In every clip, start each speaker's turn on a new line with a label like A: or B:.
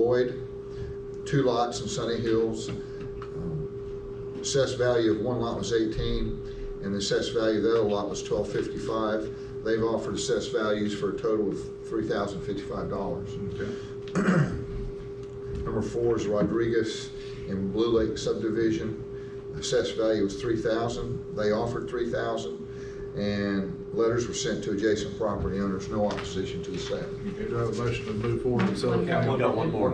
A: Lloyd, two lots in Sunny Hills. Um, Assessed value of one lot was 18, and the assessed value of the other lot was 1255. They've offered assessed values for a total of $3,055.
B: Okay.
A: Number four is Rodriguez in Blue Lake subdivision. Assessed value was three thousand, they offered three thousand, and letters were sent to adjacent property owners, no opposition to the sale.
B: Okay, do I have a motion to move forward and sell the
C: Yeah, we
B: county?
C: got one more.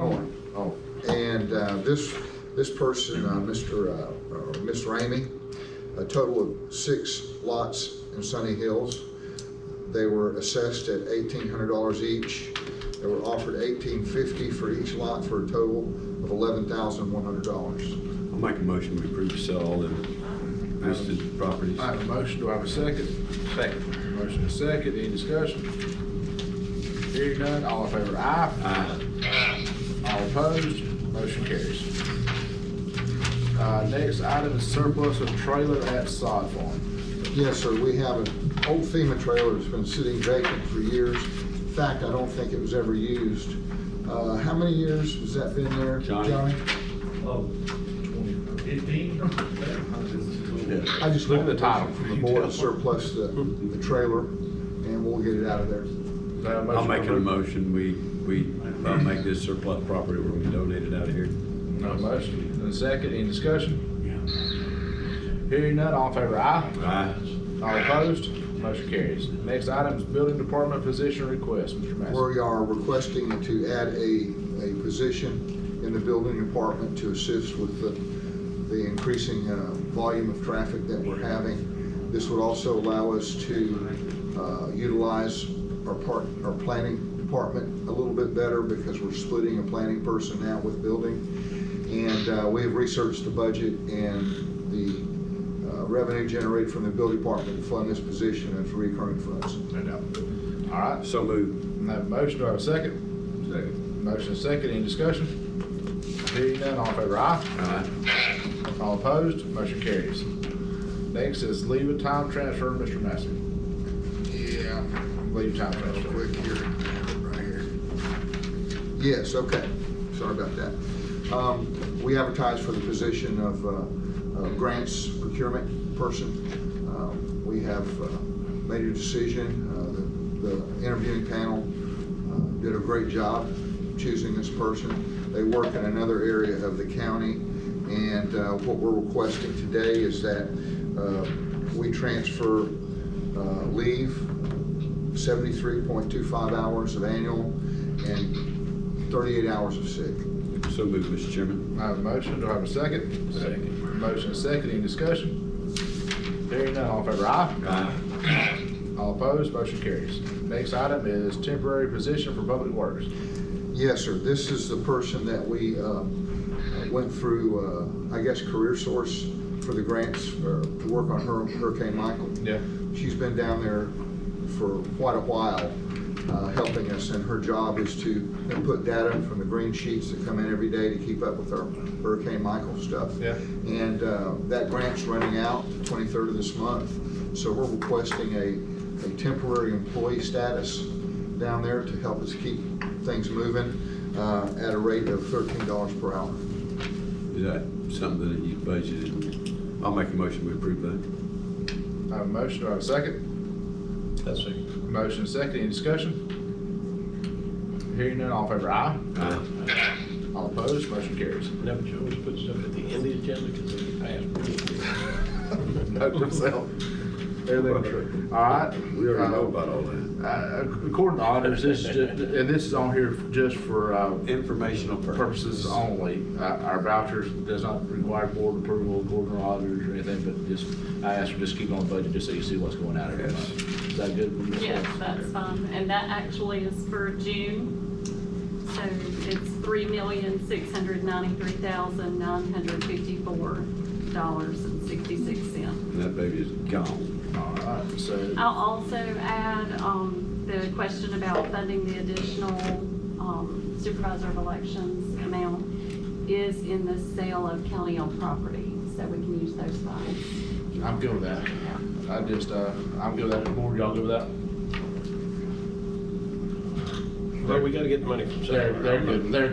A: Oh, and uh, this, this person, uh, Mr., uh, or Ms. Ramey, a total of six lots in Sunny Hills. They were assessed at eighteen hundred dollars each. They were offered eighteen fifty for each lot for a total of eleven thousand one hundred dollars.
D: I'll make a motion to approve sell all the listed properties.
B: I have a motion, do I have a second?
C: Second.
B: Motion is second, any discussion? Hearing none, all in favor, aye.
D: Aye.
B: All opposed, motion carries. Uh, next item is surplus of trailer at sod farm.
A: Yes, sir, we have an old FEMA trailer that's been sitting vacant for years. In fact, I don't think it was ever used. Uh, How many years has that been there,
D: Johnny.
A: Johnny?
E: Oh, fifteen?
A: I just
B: Look at the title.
A: want permission From the board to surplus the, the trailer, and we'll get it out of there.
B: Do I have
D: I'll
B: motion
D: make a
B: to approve?
D: motion, we, we, I'll make this surplus property, we're gonna donate it out of here.
B: No motion, and a second, any discussion? Hearing none, all in favor, aye.
D: Aye.
B: All opposed, motion carries. Next item is building department position request, Mr. Massey.
A: We are requesting to add a, a position in the building department to assist with the, the increasing uh, volume of traffic that we're having. This would also allow us to uh, utilize our part, our planning department a little bit better because we're splitting a planning person out with building. And uh, we have researched the budget and the uh, revenue generated from the building department to fund this position as recurring funds.
B: No doubt. All right,
D: So moved.
B: I have a motion, do I have a second?
D: Second.
B: Motion is second, any discussion? Hearing none, all in favor, aye.
D: Aye.
B: All opposed, motion carries. Next is leave of time transfer, Mr. Massey.
A: Yeah.
B: Leave of time
A: Real
B: transfer.
A: quick here, right here. Yes, okay, sorry about that. Um, We advertised for the position of uh, uh, grants procurement person. Um, We have uh, made a decision, Uh, the the interviewing panel uh, did a great job choosing this person. They work in another area of the county, and uh, what we're requesting today is that uh, we transfer uh, leave 73.25 hours of annual and 38 hours of sick.
D: So moved, Mr. Chairman.
B: I have a motion, do I have a second? Second. Motion is second, any discussion? Hearing none, all in favor, aye.
D: Aye.
B: All opposed, motion carries. Next item is temporary position for public works.
A: Yes, sir, this is the person that we uh, went through, uh, I guess, Career Source for the grants uh, to work on Hur- Hurricane Michael.
B: Yeah.
A: She's been down there for quite a while, uh, helping us, and her job is to input data from the green sheets that come in every day to keep up with our Hurricane Michael stuff.
B: Yeah.
A: And uh, that grant's running out the 23rd of this month, so we're requesting a, a temporary employee status down there to help us keep things moving uh, at a rate of $13 per hour.
D: Is that something that you budgeted? I'll make a motion, we approve that.
B: I have a motion, do I have a second?
C: That's it.
B: Motion is second, any discussion? Hearing none, all in favor, aye.
D: Aye.
B: All opposed, motion carries.
C: Now, Joe, we put stuff at the end of the agenda because they passed.
B: Note to self. Everything true. All right.
D: We already know about all that.
B: Uh, According to auditors, this is, ju- and this is on here just for uh,
D: Informational
B: purposes only. Uh, Our vouchers does not require board approval, according to auditors or anything, but just, I ask you just keep on budget just so you see what's going out every
D: Yes.
B: month. Is that good? Ms.
F: Yes,
B: West?
F: that's fine, and that actually is for June, so it's three million, six hundred ninety-three thousand, nine hundred fifty-four dollars and sixty-six cents.
D: And that baby is gone.
B: All right, so.
F: I'll also add, um, the question about funding the additional, um, supervisor of elections amount is in the sale of county-owned property, so we can use those funds.
B: I'm good with that. I just, uh, I'm good with that. The Board, y'all good with that?
C: But we gotta get the money from
B: They're,
C: somewhere.
B: they're good, they're